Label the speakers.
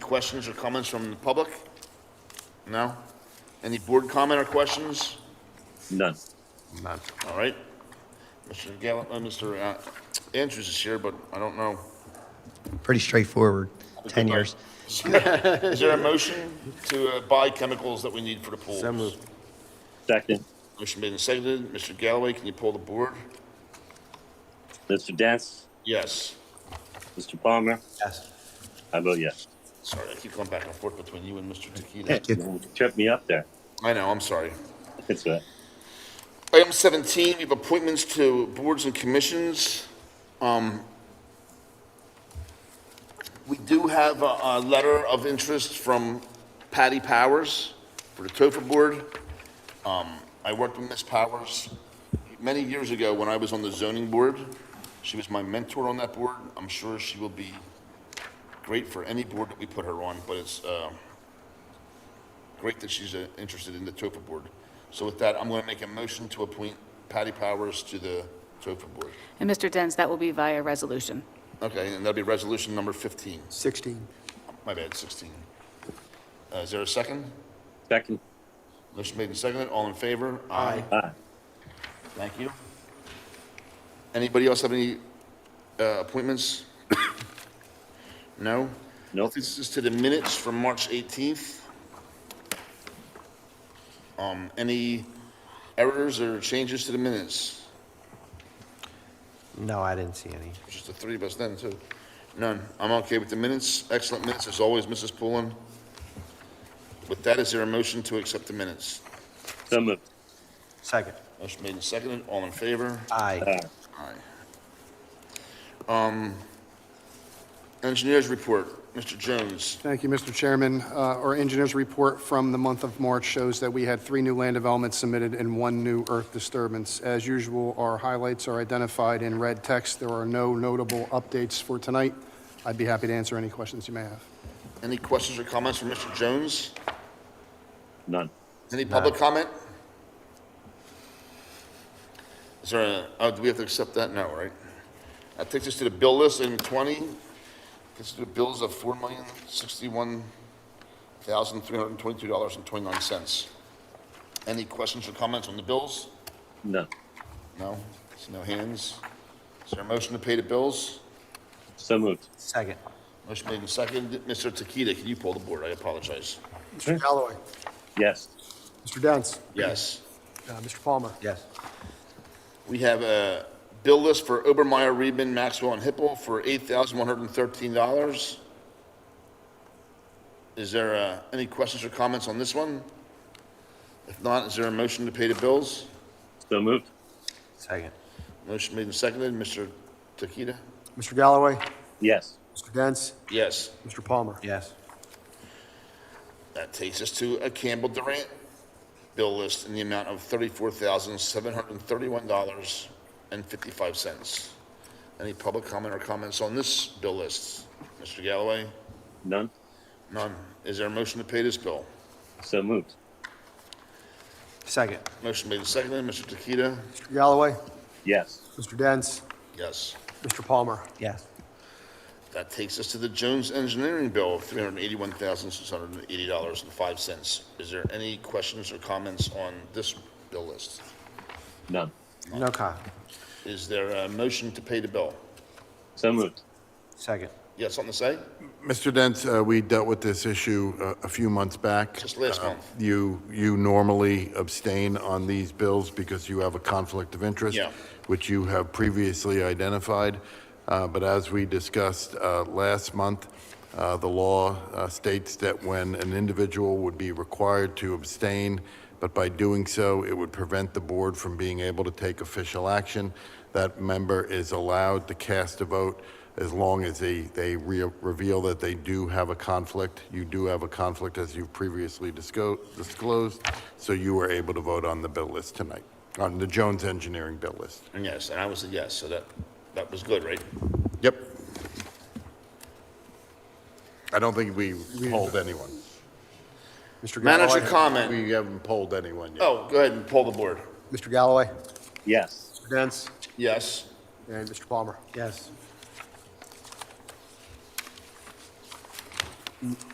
Speaker 1: questions or comments from the public? No? Any board comment or questions?
Speaker 2: None.
Speaker 1: None. All right. Mr. Gallo, uh, Mr. uh, Andrews is here, but I don't know.
Speaker 3: Pretty straightforward, 10 years.
Speaker 1: Is there a motion to uh, buy chemicals that we need for the pools?
Speaker 4: So moved.
Speaker 2: Second,
Speaker 1: Motion made and seconded. Mr. Galloway, can you pull the board?
Speaker 2: Mr. Dance,
Speaker 1: Yes.
Speaker 2: Mr. Palmer,
Speaker 4: Yes.
Speaker 2: I vote yes.
Speaker 1: Sorry, I keep going back and forth between you and Mr. Tequita.
Speaker 3: Thank you.
Speaker 2: Trip me up there.
Speaker 1: I know, I'm sorry.
Speaker 2: It's a,
Speaker 1: Item 17, we have appointments to boards and commissions. Um, We do have a, a letter of interest from Patty Powers for the Topher Board. Um, I worked with Ms. Powers many years ago when I was on the zoning board. She was my mentor on that board. I'm sure she will be great for any board that we put her on, but it's, uh, great that she's uh, interested in the TOFA board. So with that, I'm going to make a motion to appoint Patty Powers to the TOFA board.
Speaker 5: And Mr. Dens, that will be via resolution.
Speaker 1: Okay, and that'll be resolution number 15.
Speaker 4: 16.
Speaker 1: My bad, 16. Uh, Is there a second?
Speaker 2: second,
Speaker 1: Motion made and seconded. All in favor? Aye.
Speaker 2: aye.
Speaker 1: Thank you. Anybody else have any uh, appointments? No?
Speaker 2: Nope.
Speaker 1: This is to the minutes from March 18th. Um, Any errors or changes to the minutes?
Speaker 4: No, I didn't see any.
Speaker 1: Just the three of us then, too. None. I'm okay with the minutes. Excellent minutes, as always, Mrs. Pullen. With that, is there a motion to accept the minutes?
Speaker 2: So moved.
Speaker 4: Second.
Speaker 1: Motion made and seconded. All in favor?
Speaker 4: Aye.
Speaker 2: Aye.
Speaker 1: Aye. Um, engineers report, Mr. Jones.
Speaker 6: Thank you, Mr. Chairman. Uh, Our engineer's report from the month of March shows that we had three new land developments submitted and one new earth disturbance. As usual, our highlights are identified in red text. There are no notable updates for tonight. I'd be happy to answer any questions you may have.
Speaker 1: Any questions or comments from Mr. Jones?
Speaker 2: None.
Speaker 1: Any public comment? Is there a, oh, do we have to accept that? No, right? That takes us to the bill list in twenty. Gets to the bills of four million, sixty-one thousand, three hundred and twenty-two dollars and twenty-nine cents. Any questions or comments on the bills?
Speaker 2: None.
Speaker 1: No? There's no hands. Is there a motion to pay the bills?
Speaker 2: So moved.
Speaker 4: Second.
Speaker 1: Motion made and seconded. Mr. Tequita, can you pull the board? I apologize.
Speaker 7: Mr. Galloway,
Speaker 2: Yes.
Speaker 7: Mr. Dents,
Speaker 1: Yes.
Speaker 7: uh, Mr. Palmer,
Speaker 4: Yes.
Speaker 1: We have a bill list for Obermeyer, Reedman, Maxwell, and Hippel for $8,113. Is there uh, any questions or comments on this one? If not, is there a motion to pay the bills?
Speaker 2: So moved.
Speaker 4: Second.
Speaker 1: Motion made and seconded. Mr. Tequita?
Speaker 7: Mr. Galloway,
Speaker 2: Yes.
Speaker 7: Mr. Dents,
Speaker 1: Yes.
Speaker 7: Mr. Palmer.
Speaker 4: Yes.
Speaker 1: That takes us to a Campbell Durant bill list in the amount of $34,731.55. Any public comment or comments on this bill list? Mr. Galloway?
Speaker 2: None.
Speaker 1: None. Is there a motion to pay this bill?
Speaker 2: So moved.
Speaker 4: Second.
Speaker 1: Motion made and seconded. Mr. Tequita?
Speaker 7: Mr. Galloway,
Speaker 2: Yes.
Speaker 7: Mr. Dents,
Speaker 1: Yes.
Speaker 7: Mr. Palmer.
Speaker 4: Yes.
Speaker 1: That takes us to the Jones Engineering bill of $381,680.05. Is there any questions or comments on this bill list?
Speaker 2: None.
Speaker 4: No comment.
Speaker 1: Is there a motion to pay the bill?
Speaker 2: So moved.
Speaker 4: Second.
Speaker 1: You got something to say?
Speaker 8: Mr. Dent, uh, we dealt with this issue uh, a few months back.
Speaker 1: Just last
Speaker 8: Uh,
Speaker 1: month.
Speaker 8: You, you normally abstain on these bills because you have a conflict of interest,
Speaker 1: Yeah.
Speaker 8: which you have previously identified. Uh, But as we discussed uh, last month, uh, the law uh, states that when an individual would be required to abstain, but by doing so, it would prevent the board from being able to take official action, that member is allowed to cast a vote as long as they, they re- reveal that they do have a conflict. You do have a conflict, as you've previously disco- disclosed, so you were able to vote on the bill list tonight, on the Jones Engineering bill list.
Speaker 1: And yes, and I was a yes, so that, that was good, right?
Speaker 8: Yep. I don't think we polled anyone.
Speaker 7: Mr.
Speaker 1: Manager
Speaker 7: Galloway,
Speaker 1: comment.
Speaker 8: We haven't polled anyone yet.
Speaker 1: Oh, go ahead and pull the board.
Speaker 7: Mr. Galloway,
Speaker 2: Yes.
Speaker 7: Mr. Dents,
Speaker 1: Yes.
Speaker 7: and Mr. Palmer.
Speaker 4: Yes.